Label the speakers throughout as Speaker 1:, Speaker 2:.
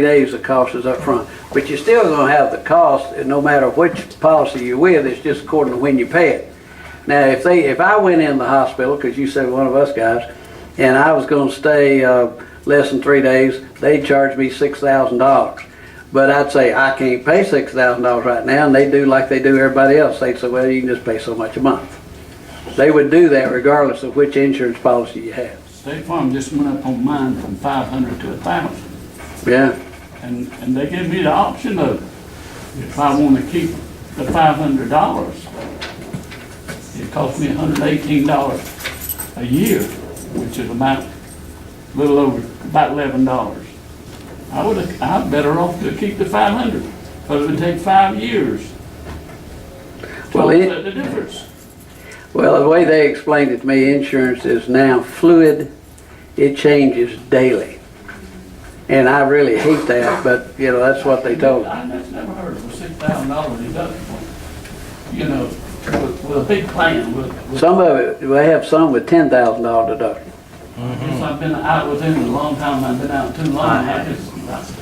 Speaker 1: days, the cost is up front, But you're still gonna have the cost, and no matter which policy you're with, it's just according to when you pay it. Now, if they, if I went in the hospital, because you said one of us guys, and I was gonna stay, uh, less than three days, they'd charge me six thousand dollars. But I'd say, I can't pay six thousand dollars right now, and they do like they do everybody else, they'd say, well, you can just pay so much a month. They would do that regardless of which insurance policy you have,
Speaker 2: State Farm just went up on mine from five hundred to a thousand,
Speaker 1: yeah?
Speaker 2: and, and they gave me the option of, if I wanna keep the five hundred dollars, it cost me hundred eighteen dollars a year, which is about, a little over, about eleven dollars. I would, I'm better off to keep the five hundred, but it would take five years to
Speaker 1: Well, it-
Speaker 2: offset the difference.
Speaker 1: Well, the way they explained it to me, insurance is now fluid. It changes daily. And I really hate that, but, you know, that's what they told me.
Speaker 2: I just never heard of a six thousand dollar deductible, you know, with, with a big plan, with, with,
Speaker 1: Some of it, they have some with ten thousand dollar deductible.
Speaker 2: since I've been out with him a long time, I've been out too long, I just,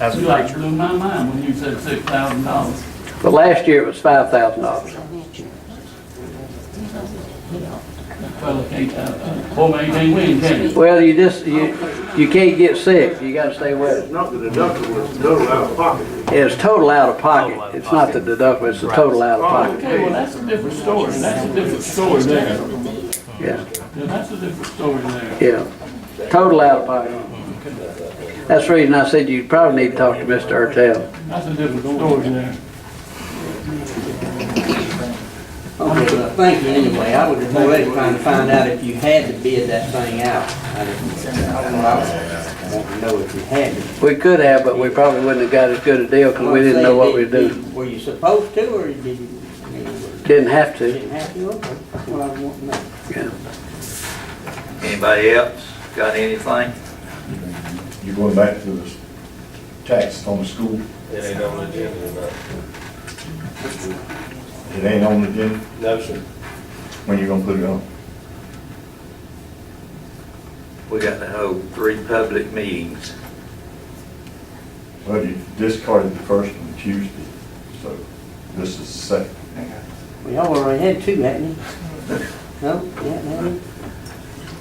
Speaker 2: I-
Speaker 3: As a
Speaker 2: you like
Speaker 3: preacher.
Speaker 2: blew my mind when you said six thousand dollars.
Speaker 1: But last year it was five thousand dollars.
Speaker 2: Well, I can't, uh, uh, boy, man, you can't win, can you?
Speaker 1: Well, you just, you, you can't get sick. You gotta stay with
Speaker 4: It's not the deductible, it's the total out of pocket.
Speaker 1: it. It's total out of pocket. It's not the deductible, it's the total out of pocket,
Speaker 2: Okay, well, that's a different story, that's a different story there,
Speaker 1: yeah.
Speaker 2: Yeah, that's a different story there.
Speaker 1: Yeah, total out of pocket. That's the reason I said you probably need to talk to Mr. Ertel.
Speaker 2: That's a different story there.
Speaker 5: Okay, well, thank you anyway. I was more or less trying to find out if you had to bid that thing out. I didn't, I don't know, I was wanting to know if you had to.
Speaker 1: We could have, but we probably wouldn't have got as good a deal because we didn't know what we were doing.
Speaker 5: Were you supposed to, or did you, I mean,
Speaker 1: Didn't have
Speaker 5: you
Speaker 1: to,
Speaker 5: didn't have to? Okay, that's what I want to know.
Speaker 1: yeah.
Speaker 6: Anybody else got anything?
Speaker 7: You're going back to the tax on the school?
Speaker 8: It ain't on the agenda tonight.
Speaker 7: It ain't on the agenda?
Speaker 8: No, sir.
Speaker 7: When you gonna put it on?
Speaker 6: We got to hold three public meetings.
Speaker 7: Well, you discarded the first one Tuesday, so this is the second.
Speaker 5: Well, y'all already had two, hadn't you? No, you hadn't had it?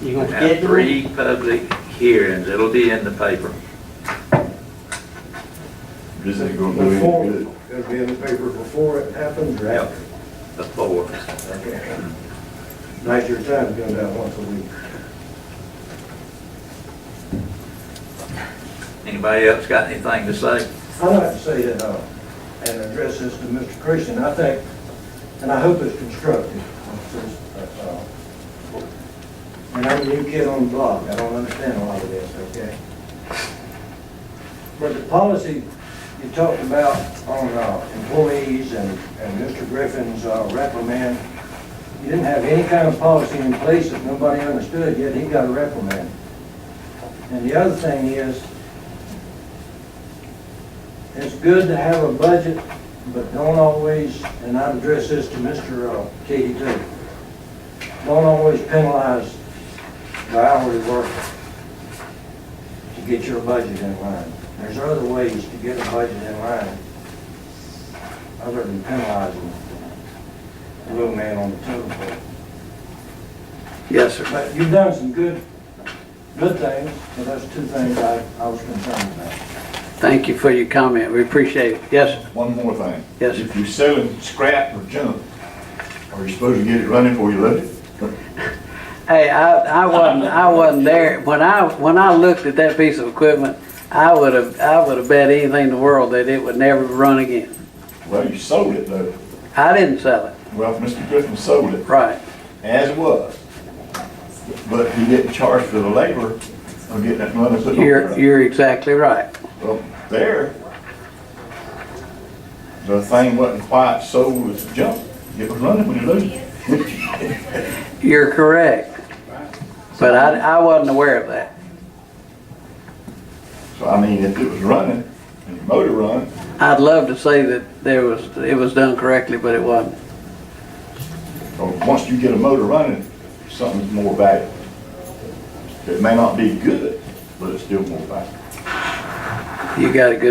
Speaker 5: You
Speaker 6: We
Speaker 5: gonna
Speaker 6: have
Speaker 5: schedule it?
Speaker 6: three public hearings. It'll be in the paper.
Speaker 7: This ain't gonna do
Speaker 4: Before,
Speaker 7: any good.
Speaker 4: it'll be in the paper before it happens or after.
Speaker 6: The four.
Speaker 4: Okay. Nice your time doing that once a week.
Speaker 6: Anybody else got anything to say?
Speaker 4: I'd like to say that, uh, and address this to Mr. Christian, I think, and I hope it's constructive. uh, uh, And I'm a new kid on the block, I don't understand a lot of this, okay? But the policy you talked about on uh, employees and, and Mr. Griffin's uh, reprimand, you didn't have any kind of policy in place that nobody understood, yet he got a reprimand. And the other thing is, it's good to have a budget, but don't always, and I address this to Mr. uh, Katie too, don't always penalize the hourly worker to get your budget in line. There's other ways to get a budget in line, other than penalizing the little man on the totem pole.
Speaker 1: Yes, sir.
Speaker 4: But you've done some good, good things, but that's two things I, I was concerned about.
Speaker 1: Thank you for your comment. We appreciate it. Yes, sir.
Speaker 7: One more thing.
Speaker 1: Yes, sir.
Speaker 7: If you're selling scrap or junk, are you supposed to get it running before you load it?
Speaker 1: Hey, I, I wasn't, I wasn't there. When I, when I looked at that piece of equipment, I would have, I would have bet anything in the world that it would never run again.
Speaker 7: Well, you sold it though.
Speaker 1: I didn't sell it.
Speaker 7: Well, Mr. Griffin sold it
Speaker 1: Right.
Speaker 7: as was, but he didn't charge for the labor of getting that money put on. the
Speaker 1: You're,
Speaker 7: truck.
Speaker 1: you're exactly right.
Speaker 7: Well, there, the thing wasn't quite sold as junk. It was running when you loaded it.
Speaker 1: You're correct. But I, I wasn't aware of that.
Speaker 7: So I mean, if it was running and your motor run,
Speaker 1: I'd love to say that there was, it was done correctly, but it wasn't.
Speaker 7: or once you get a motor running, something's more valuable. It may not be good, but it's still more valuable.
Speaker 1: You got a good